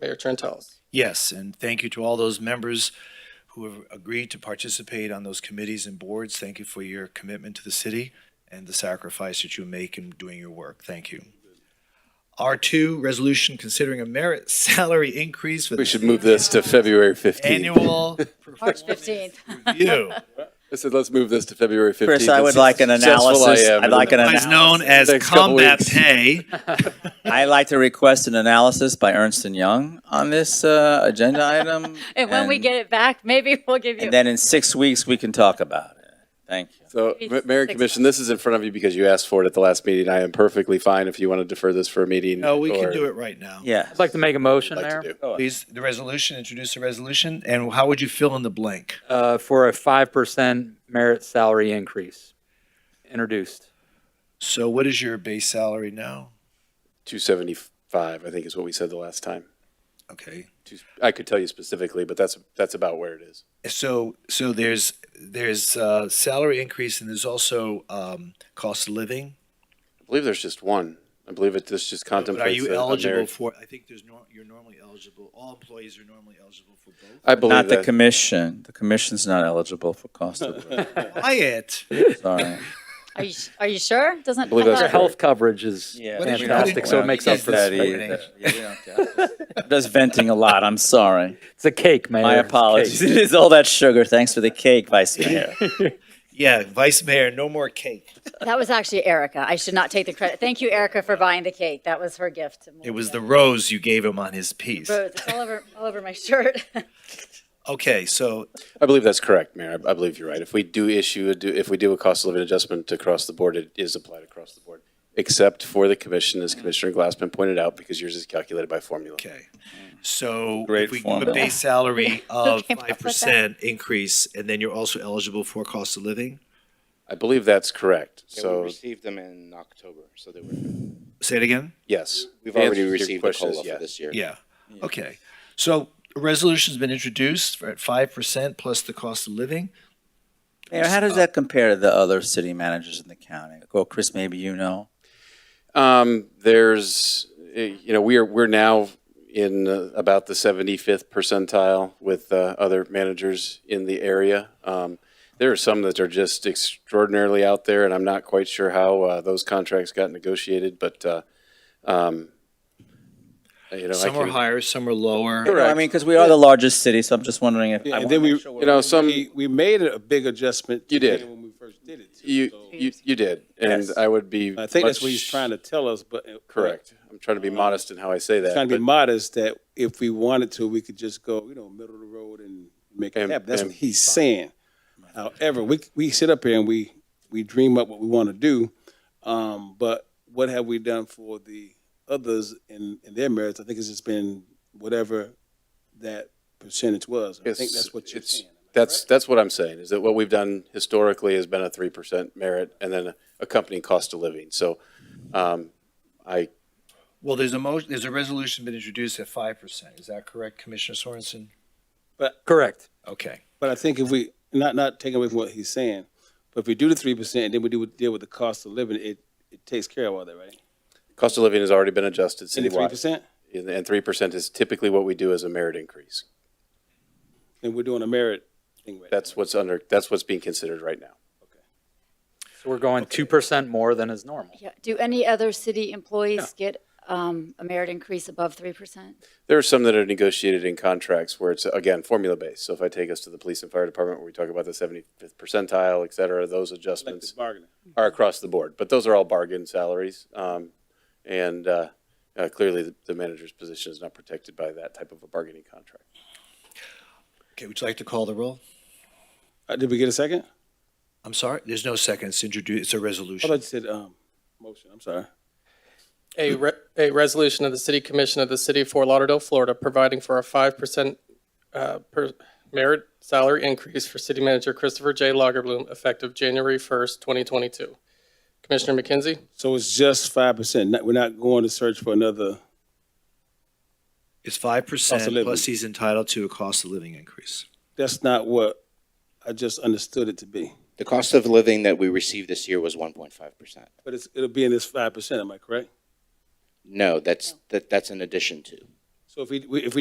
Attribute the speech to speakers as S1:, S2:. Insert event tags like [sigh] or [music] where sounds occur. S1: Mayor Trentalles.
S2: Yes, and thank you to all those members who have agreed to participate on those committees and boards. Thank you for your commitment to the city and the sacrifice that you make in doing your work. Thank you. R2, resolution considering a merit [laughs] salary increase for
S3: We
S2: the
S3: should move this to February 15th. [laughs]
S2: annual
S4: March 15th.
S2: review,
S3: I said, let's move this to February 15th.
S5: Chris, I would
S3: That's
S5: like an
S3: how successful I
S5: analysis.
S3: am.
S5: I'd like an
S2: otherwise known
S5: analysis.
S2: as
S3: Next couple
S2: combat
S3: weeks. [laughs]
S2: pay.
S5: [laughs] I'd like to request an analysis by Ernst and Young on this uh,
S4: [laughs]
S5: agenda item.
S4: [laughs] And when we get it back, maybe we'll give you.
S5: And then in six weeks, we can talk about it. Thank you.
S3: So,
S4: Maybe
S3: Ma- Mayor and
S4: six
S3: Commission, this is in front of you because you asked for it at the last meeting. I am perfectly fine if you want to defer this for a meeting.
S2: No, we can
S3: or-
S2: do it right now.
S5: Yeah.
S6: I'd like to make a motion,
S3: like to
S6: Mayor,
S3: do.
S2: Please, the resolution, introduce the resolution, and how would you fill in the blank?
S6: uh, for a 5% merit salary increase introduced.
S2: So what is your base salary now?
S3: 275, I think is what we said the last time.
S2: Okay.
S3: Two- I could tell you specifically, but that's, that's about where it is.
S2: So, so there's, there's uh salary increase and there's also um, cost of living.
S3: I believe there's just one. I believe it, this just
S2: But are
S3: contemplates.
S2: you
S3: a- a
S2: eligible
S3: merit-
S2: for, I think there's, nor- you're normally eligible, all employees are normally eligible for
S3: [laughs]
S2: both.
S3: I believe
S5: Not the
S3: that.
S5: commission. The commission's not eligible for cost of living.
S2: Quiet.
S5: Sorry.
S4: Are you, are you sure? Doesn't.
S3: Believe
S4: I
S3: that's
S6: Their
S4: thought-
S3: correct.
S6: health coverage is fantastic, so it makes up for e-
S2: that
S6: the
S2: either.
S6: spread.
S5: I'm Just venting a lot. I'm sorry.
S6: It's a cake, Mayor.
S5: My
S6: It's a cake.
S5: apologies. [laughs] It is all that sugar. Thanks for the cake, Vice Mayor.
S2: Yeah, Vice Mayor, no more cake.
S4: That was actually Erica. I should not take the credit. Thank you, Erica, for buying the cake. That was her gift.
S2: It was the rose you gave him on his piece.
S4: Rose, It's all over, all over my shirt. [laughs]
S2: Okay, so
S3: I believe that's correct, Mayor. I I believe you're right. If we do issue, a do- if we do a cost of living adjustment across the board, it is applied across the board, except for the commission, as Commissioner Glassman pointed out, because yours is calculated by formula.
S2: Okay. So
S5: Great
S2: if we give a
S5: formula.
S2: base salary of
S4: came up
S2: five
S4: with that?
S2: percent increase, and then you're also eligible for cost of living?
S3: I believe that's correct.
S7: Yeah, we
S3: So,
S7: received them in October, so they were,
S2: Say it again?
S3: yes.
S7: we've
S3: The answer
S7: already
S3: to your
S7: received a
S3: question is
S7: COLA for
S3: yes.
S7: this year.
S2: Yeah. Okay. So a resolution's been introduced for at five percent plus the cost of living.
S5: Mayor, how does that compare to the other city managers in the county? Well, Chris, maybe you know.
S3: Um, there's, uh, you know, we are, we're now in uh, about the 75th percentile with uh, other managers in the area. Um, there are some that are just extraordinarily out there, and I'm not quite sure how uh, those contracts got negotiated, but, uh, um, you know, I
S2: Some are
S3: can,
S2: higher, some are lower.
S5: No, I mean, because we are the largest city, so I'm just wondering if. I
S8: And
S5: wanna
S8: then we,
S5: make sure
S3: you know, some,
S8: we, we made a big adjustment.
S3: You did.
S8: When we first did it. too.
S3: you,
S8: So,
S3: you, you did, and I would be.
S8: I think that's what
S3: much-
S8: he's trying to tell us, but. uh,
S3: Correct. I'm trying to be modest in how I say that.
S8: Trying to
S3: but-
S8: be modest that if we wanted to, we could just go, you know, middle of the road and make it
S3: And-
S8: happen. That's what
S3: and-
S8: he's saying. However, we, we sit up here and we, we dream up what we want to do. Um, but what have we done for the others in, in their merits? I think it's just been whatever that percentage was. I think
S3: It's-
S8: that's what you're
S3: it's-
S8: saying.
S3: That's, that's what I'm saying, is that what we've done historically has been a three percent merit and then accompanying cost of living. So, um, I,
S2: Well, there's a motion, there's a resolution been introduced at five percent. Is that correct, Commissioner Sorensen?
S6: Correct.
S2: Okay.
S8: But I think if we, not, not taking away from what he's saying, but if we do the three percent and then we do, deal with the cost of living, it, it takes care of all that, right?
S3: cost of living has already been adjusted
S8: And the three
S3: citywide.
S8: percent,
S3: And- And three percent is typically what we do as a merit increase.
S8: and we're doing a merit thing right now.
S3: That's what's under, that's what's being considered right now.
S6: So we're going 2% more than is normal.
S4: Yeah. Do any other city employees get um, a merit increase above 3%?
S3: There are some that are negotiated in contracts where it's, again, formula-based. So if I take us to the police and fire department where we talk about the seventy-fifth percentile, et cetera, those adjustments.
S8: Collective bargaining.
S3: are across the board, but those are all bargain salaries. Um, and uh, uh, clearly, the, the manager's position is not protected by that type of a bargaining contract.
S2: Okay, would you like to call the roll?
S8: Uh, did we get a second?
S2: I'm sorry, there's no second. It's introduced, it's a
S8: I thought you
S2: resolution.
S8: said, um, motion, I'm sorry.
S1: A, re- a resolution of the City Commission of the City of Fort Lauderdale, Florida, providing for a 5% uh, per merit salary increase for City Manager Christopher J. Lagerbloom effective January 1st, 2022. Commissioner McKenzie?
S8: So it's just five percent, we're not going to search for another,
S2: It's five
S8: Cost
S2: percent
S8: of living.
S2: plus he's entitled to a cost of living increase.
S8: that's not what I just understood it to be.
S7: The cost of living that we received this year was one point five percent.
S8: But it's, it'll be in this five percent, am I correct?
S7: No, that's, that, that's an addition to.
S8: So if we, we- if we